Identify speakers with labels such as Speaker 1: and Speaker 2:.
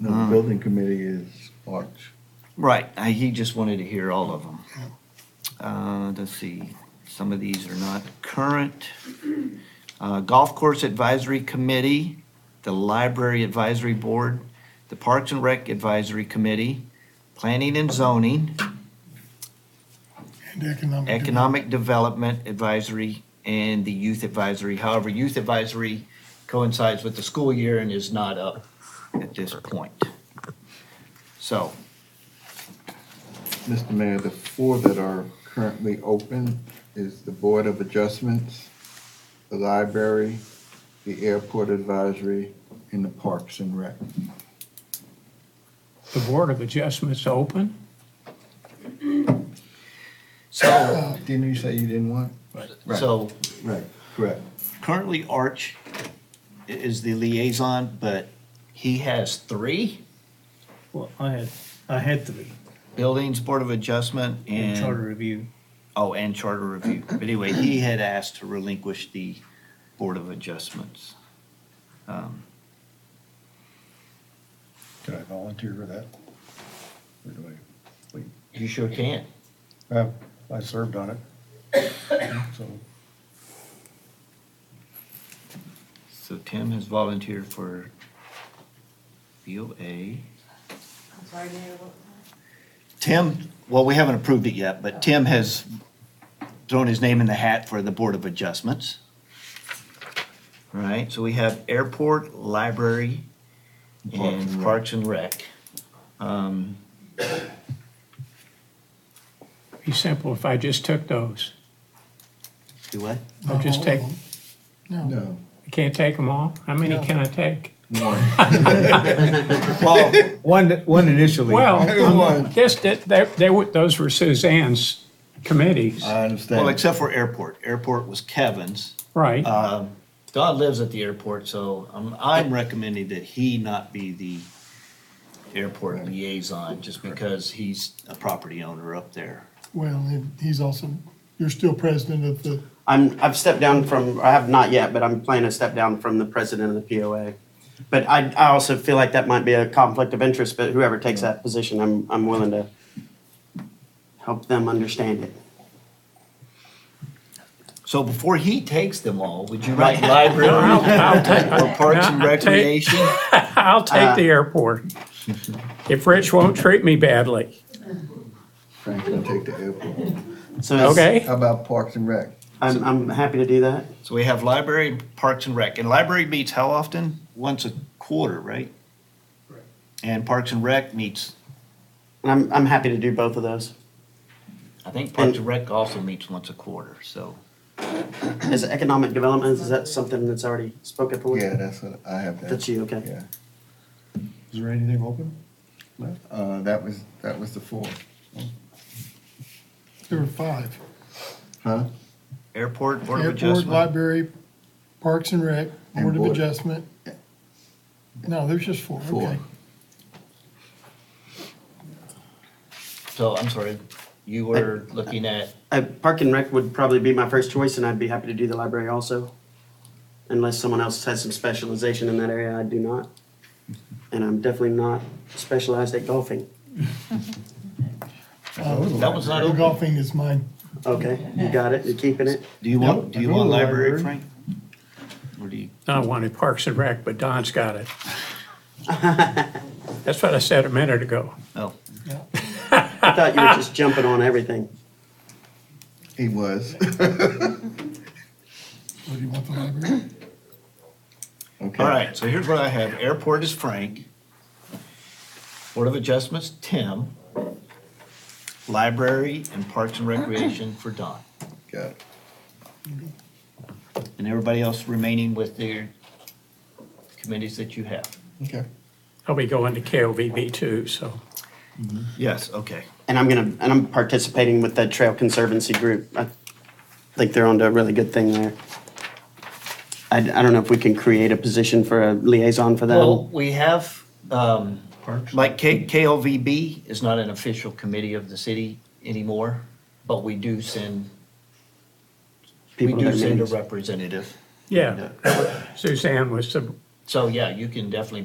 Speaker 1: No, the building committee is March.
Speaker 2: Right, I, he just wanted to hear all of them. Uh, let's see, some of these are not current. Uh, Golf Course Advisory Committee, the Library Advisory Board, the Parks and Rec Advisory Committee, Planning and Zoning,
Speaker 3: And economic.
Speaker 2: Economic Development Advisory, and the Youth Advisory. However, Youth Advisory coincides with the school year and is not up at this point. So,
Speaker 1: Mr. Mayor, the four that are currently open is the Board of Adjustments, the Library, the Airport Advisory, and the Parks and Rec.
Speaker 4: The Board of Adjustments open?
Speaker 2: so,
Speaker 1: Uh, Didn't you say you didn't want? Right.
Speaker 2: so
Speaker 1: Right, correct.
Speaker 2: Currently, Arch i- is the liaison, but he has three
Speaker 5: Well, I had, I had three
Speaker 2: buildings, Board of Adjustment,
Speaker 5: in charter
Speaker 2: and,
Speaker 5: review.
Speaker 2: oh, and Charter Review. But anyway, he had asked to relinquish the Board of Adjustments. Um,
Speaker 6: Did I volunteer for that? Or do
Speaker 2: You sure can.
Speaker 6: I, Uh, I served on it. So,
Speaker 2: So Tim has volunteered for BOA.
Speaker 7: I'm sorry, Mayor, what?
Speaker 2: Tim, well, we haven't approved it yet, but Tim has thrown his name in the hat for the Board of Adjustments. All Right, so we have airport, library, and parks and rec. Um,
Speaker 4: Be simple if I just took those.
Speaker 2: Do what?
Speaker 4: I'll just
Speaker 5: Oh.
Speaker 4: take,
Speaker 3: No,
Speaker 1: No.
Speaker 4: I can't take them all? How many can I take?
Speaker 2: Well,
Speaker 5: One, one initially.
Speaker 4: Well, I'm-
Speaker 1: One.
Speaker 4: this, that, that- they were, those were Suzanne's committees,
Speaker 5: Uh,
Speaker 1: I understand.
Speaker 2: well, except for airport. Airport was Kevin's.
Speaker 4: right?
Speaker 5: uh,
Speaker 2: Um, Don lives at the airport, so I'm, I'm recommending that he not be the airport liaison, just because he's a property owner up there.
Speaker 3: well, and he's also, you're still president of the,
Speaker 8: I'm, I've stepped down from, I have not yet, but I'm planning to step down from the president of the POA. But I, I also feel like that might be a conflict of interest, but whoever takes that position, I'm, I'm willing to help them understand it.
Speaker 2: So before he takes them all, would you write library or parks and
Speaker 4: I'll take-
Speaker 2: recreation?
Speaker 4: I'll take the
Speaker 5: uh.
Speaker 4: airport, if Rich won't treat me badly,
Speaker 1: Frank's gonna take the airport.
Speaker 8: So it's-
Speaker 4: okay?
Speaker 1: How about Parks and Rec?
Speaker 8: I'm, I'm happy to do that.
Speaker 2: So we have library, parks and rec, and library meets how often? Once a quarter, right? And parks and rec meets,
Speaker 8: And I'm, I'm happy to do both of those.
Speaker 2: I think parks and rec also meets once a quarter, so.
Speaker 8: Is it economic development, is that something that's already spoken for?
Speaker 1: Yeah, that's what, I have that.
Speaker 8: That's you, okay.
Speaker 1: Yeah.
Speaker 6: is there anything open?
Speaker 1: Well, Uh, that was, that was the four.
Speaker 3: there were five.
Speaker 1: Huh?
Speaker 2: Airport, board of
Speaker 3: Airport,
Speaker 2: adjustment,
Speaker 3: library, Parks and Rec,
Speaker 1: And
Speaker 3: Board of
Speaker 1: Board.
Speaker 3: Adjustment. No, there's just four,
Speaker 1: Four.
Speaker 3: okay.
Speaker 2: so I'm sorry, you were looking at,
Speaker 8: Uh, Park and Rec would probably be my first choice, and I'd be happy to do the library also. Unless someone else has some specialization in that area, I do not. And I'm definitely not specialized at golfing.
Speaker 2: that was not
Speaker 3: The
Speaker 2: open.
Speaker 3: Golfing is mine.
Speaker 8: Okay, you got it, you're keeping it.
Speaker 2: Do you want,
Speaker 6: Yep,
Speaker 2: do
Speaker 6: I
Speaker 2: you
Speaker 6: go
Speaker 2: want
Speaker 6: to
Speaker 2: library,
Speaker 6: library.
Speaker 2: Frank? Or do you,
Speaker 4: I wanted Parks and Rec, but Don's got it. That's what I said a minute ago.
Speaker 2: oh,
Speaker 8: I thought you were just jumping on everything.
Speaker 1: He was.
Speaker 3: What do you want the library?
Speaker 1: Okay.
Speaker 2: all right, so here's what I have, airport is Frank. Board of Adjustments, Tim. Library and Parks and Recreation for Don.
Speaker 1: Got it.
Speaker 2: And everybody else remaining with their committees that you have.
Speaker 1: Okay.
Speaker 4: I'll be going to KOVB too, so.
Speaker 2: Yes, okay.
Speaker 8: And I'm gonna, and I'm participating with the Trail Conservancy group. I think they're onto a really good thing there. I, I don't know if we can create a position for a liaison for
Speaker 2: Well,
Speaker 8: them.
Speaker 2: we have, um, like K, KLVB is not an official committee of the city anymore, but we do send, we
Speaker 8: people
Speaker 2: do
Speaker 8: to their
Speaker 2: send a
Speaker 8: meetings.
Speaker 2: representative.
Speaker 4: Yeah, Suzanne was the
Speaker 2: So, yeah, you can definitely